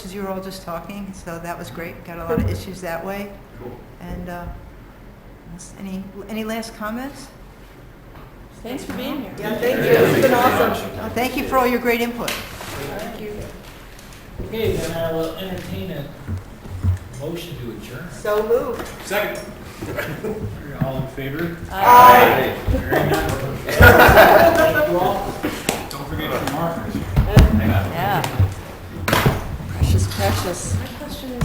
because you were all just talking, so that was great. Got a lot of issues that way. And uh, unless- any, any last comments? Thanks for being here. Yeah, thank you. It's been awesome. Thank you for all your great input. Thank you. Okay, then I will entertain a motion to adjourn. So moved. All in favor? Aye. Very good.